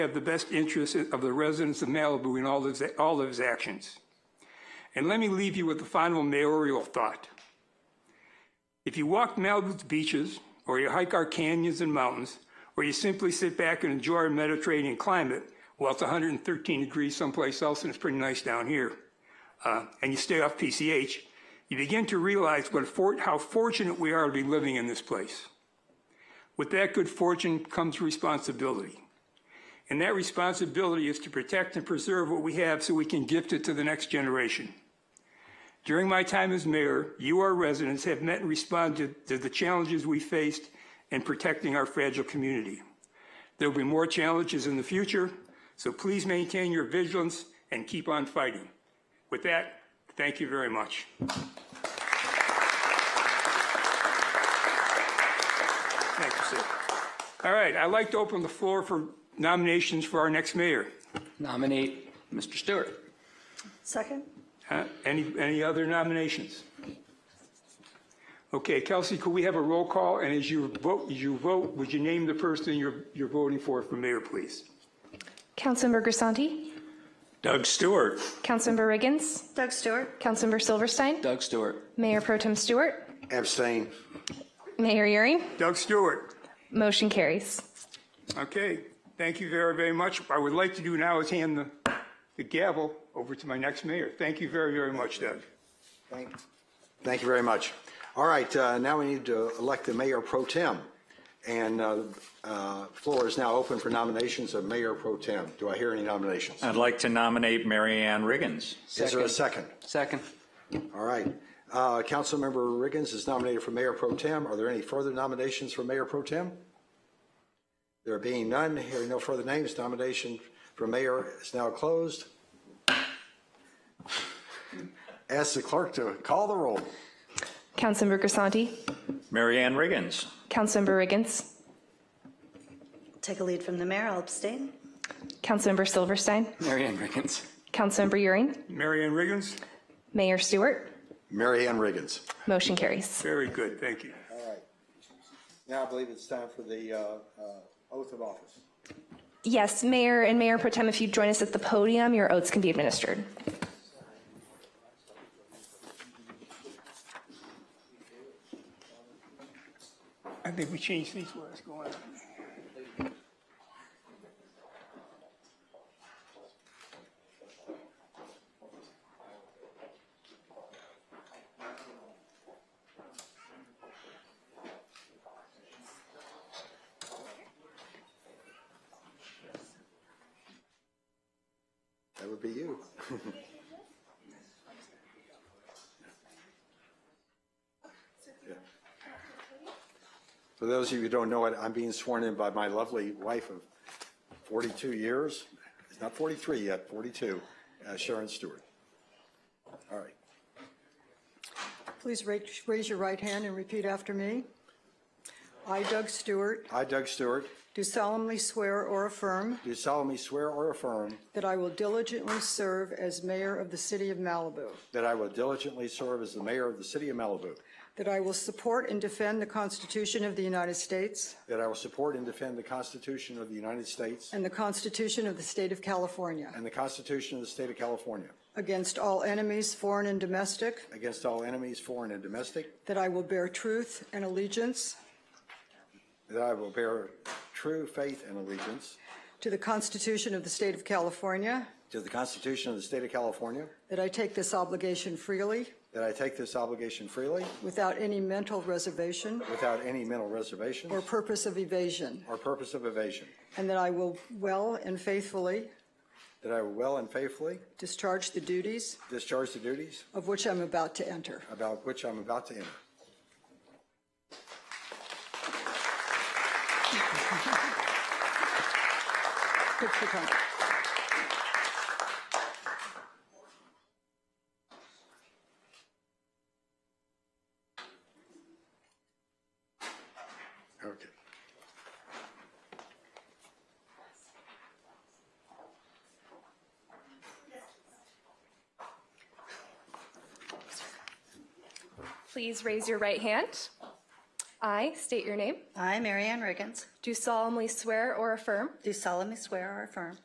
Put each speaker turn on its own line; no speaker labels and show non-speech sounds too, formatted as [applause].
have the best interests of the residents of Malibu in all of, his- all of his actions. And let me leave you with the final mayoral thought. If you walk Malibu's beaches, or you hike our canyons and mountains, or you simply sit back and enjoy our Mediterranean climate, well, it's 113 degrees someplace else, and it's pretty nice down here, uh, and you stay off PCH, you begin to realize what for, how fortunate we are to be living in this place. With that good fortune comes responsibility. And that responsibility is to protect and preserve what we have so we can gift it to the next generation. During my time as mayor, you, our residents, have met and responded to the challenges we faced in protecting our fragile community. There will be more challenges in the future, so please maintain your vigilance and keep on fighting. With that, thank you very much. Thank you, sir. All right, I'd like to open the floor for nominations for our next mayor.
Nominate Mr. Stewart.
Second?
Uh, Any, any other nominations? Okay, Kelsey, could we have a roll call? And as you vote, as you vote, would you name the person you're, you're voting for for mayor, please?
Councilmember Grisanti,
Doug Stewart.
Councilmember Riggins,
Doug Stewart?
Councilmember Silverstein,
Doug Stewart.
Mayor Pro Tem Stewart,
Abstain.
Mayor Uring.
Doug Stewart.
Motion carries.
Okay, thank you very, very much. What I would like to do now is hand the, the gavel over to my next mayor. Thank you very, very much, Doug.
Thank thank you very much. All right, uh, now we need to elect the mayor pro tem. And uh, uh, floor is now open for nominations of mayor pro tem. Do I hear any nominations?
I'd like to nominate Mary Ann Riggins.
Is there a second?
Second.
All right. Uh, Councilmember Riggins is nominated for mayor pro tem. Are there any further nominations for mayor pro tem? There being none, hearing no further names, nomination for mayor is now closed. Ask the clerk to call the roll.
Councilmember Grisanti,
Mary Ann Riggins.
Councilmember Riggins,
Take a lead from the mayor, I'll abstain.
Councilmember Silverstein,
Mary Ann Riggins.
Councilmember Uring,
Mary Ann Riggins?
Mayor Stewart.
Mary Ann Riggins.
Motion carries.
Very good, thank you.
All right. Now I believe it's time for the uh, uh, oath of office.
Yes, Mayor and Mayor Pro Tem, if you join us at the podium, your oaths can be administered.
I think we changed these while it's going on.
That would be you. [laughs] Yeah. For those of you who don't know it, I'm being sworn in by my lovely wife of 42 years, it's not 43 yet, 42, uh, Sharon Stewart. All right.
Please ra- raise your right hand and repeat after me. I, Doug Stewart,
I, Doug Stewart,
do solemnly swear or affirm
do solemnly swear or affirm
that I will diligently serve as mayor of the city of Malibu,
that I will diligently serve as the mayor of the city of Malibu,
that I will support and defend the Constitution of the United States
that I will support and defend the Constitution of the United States
and the Constitution of the state of California
and the Constitution of the state of California
against all enemies, foreign and domestic,
against all enemies, foreign and domestic,
that I will bear truth and allegiance
That I will bear true faith and allegiance
to the Constitution of the state of California,
to the Constitution of the State of California.
that I take this obligation freely
That I take this obligation freely
without any mental reservation
without any mental reservation
or purpose of evasion,
or purpose of evasion.
And that I will well and faithfully
That I will well and faithfully
discharge the duties
discharge the duties
of which I'm about to enter.
about which I'm about to enter.
Good for coming.
Okay.
Please raise your right hand I state your name.
I, Mary Ann Riggins,
Do solemnly swear or affirm
do solemnly swear or affirm